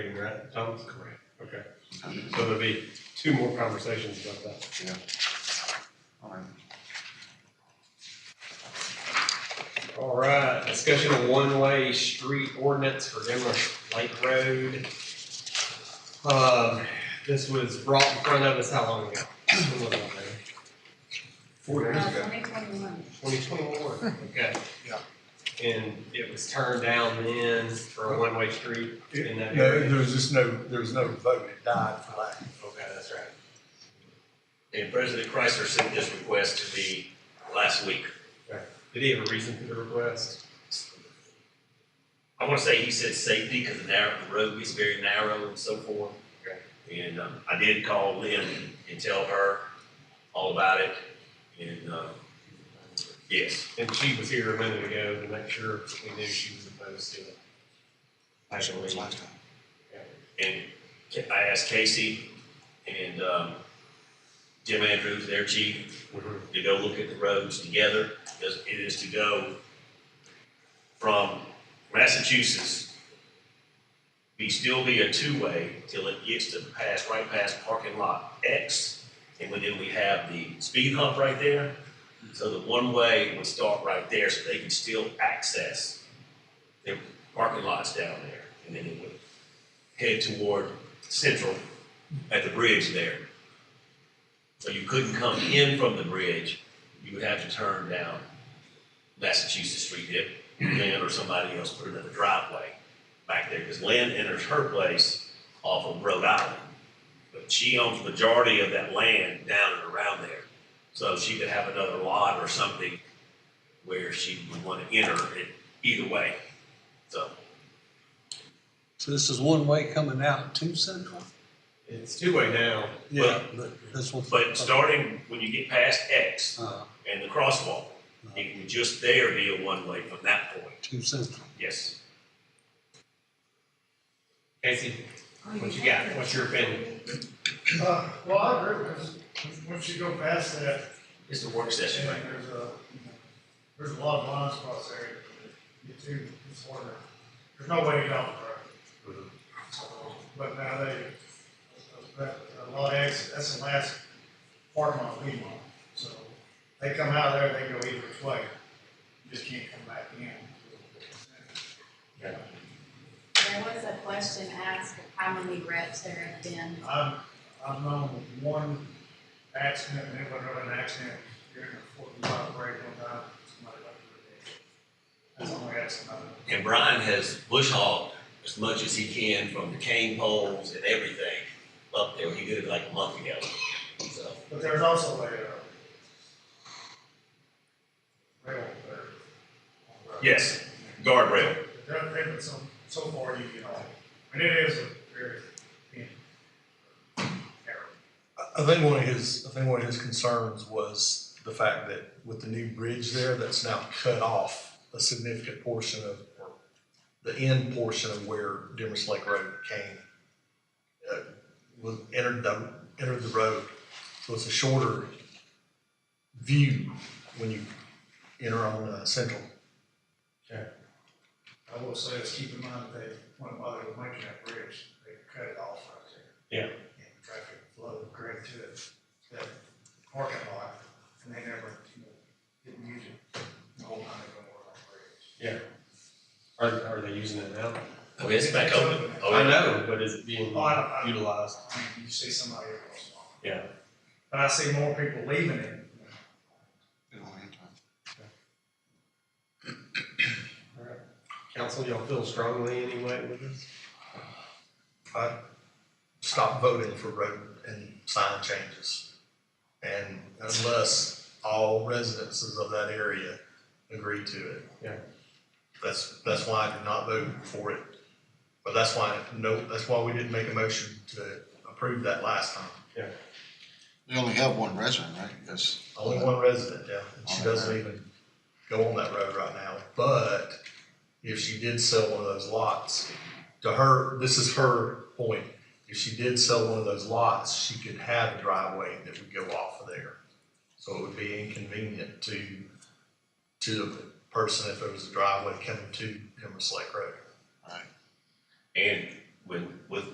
Right, Tom? Correct. Oh, Okay, Okay. so there'll be two more conversations about that. All right. All right, discussion of one-way street ordinance for Demerish Lake Road. Um, this was brought in front of us how long ago? Four years ago, Twenty twenty-one. twenty twenty-one, okay. Yeah. And it was turned down then for a one-way street in that No, area. there was just no, there was no vote, it died for lack. Okay, that's right. And President Chrysler sent this request to me last week. Did he have a reason for the request? I want to say he said safety because the narrow, the road gets very narrow and so forth. And um, I did call Lynn and tell her all about it. And, um, yes, And she was here a minute ago to make sure that we knew she was opposed to it. Actually, and I asked Casey and um, Jim Andrews, their chief, Mhm. to go look at the roads together. because It is to go from Massachusetts, be still be a two-way till it gets to pass, right past parking lot X. And then we have the speed hump right there. So the one-way would start right there so they can still access their parking lots down there. And then it would head toward Central at the bridge there. So you couldn't come in from the bridge, you would have to turn down Massachusetts Street if Lynn or somebody else put another driveway back there, because Lynn enters her place off of Rhode Island. But she owns majority of that land down and around there, so she could have another lot or something where she would want to enter it either way, so. So this is one way coming out to Central? It's two-way now. Yeah. But this one. But starting when you get past X Uh, and the crosswalk, uh, it would just there be a one-way from that point, To Central. yes. Casey, what you got? What's your opinion? Uh, Well, I agree with, once you go past that, It's the work session right and there's a, there's a lot of blind spots there, you too, it's harder. There's no way to get off the road. But now they, that, a lot of exits, that's the last parking lot we want, so they come out of there, they go either which way, You just can't come back in. There was a question asked of how many reps there have been. I've, I've known one accident, and it went over an accident during a forty-five break one time, somebody left their head. That's the only accident I've now. And Brian has bush hogged as much as he can from the cane poles and everything up there. He did it like a month ago, so. But there's also a, uh, rail there. Yes, guardrail. There, there, but so, so far you get off, and it is a very thin arrow. I- I think one of his, I think one of his concerns was the fact that with the new bridge there, that's now cut off a significant portion of, or the end portion of where Demers Lake Road came, uh, was, entered the, entered the road. So it's a shorter view when you enter on, uh, Central. I will say, is keep in mind that they, when mother was making that bridge, they cut it off right there. Yeah. And traffic flowed right to it, that parking lot, and they never, you know, didn't use it the whole time they were on that bridge. Are, are they using it now? Okay, it's back open. Oh, I know, but is it being Oh, I don't- I- utilized? I mean, you see somebody every once in a while. Yeah. But I see more people leaving it. Council, y'all feel strongly anyway with this? I stopped voting for road and sign changes. And unless all residences of that area agree to it. Yeah. That's, that's why I did not vote for it. But that's why, no, that's why we didn't make a motion to approve that last time. They only have one resident, right? Yes. Only one resident, yeah, and she doesn't even go on that road right now, but if she did sell one of those lots, to her, this is her point. If she did sell one of those lots, she could have a driveway that would go off of there. So it would be inconvenient to, to the person if there was a driveway coming to Emerson Lake Road. And with, with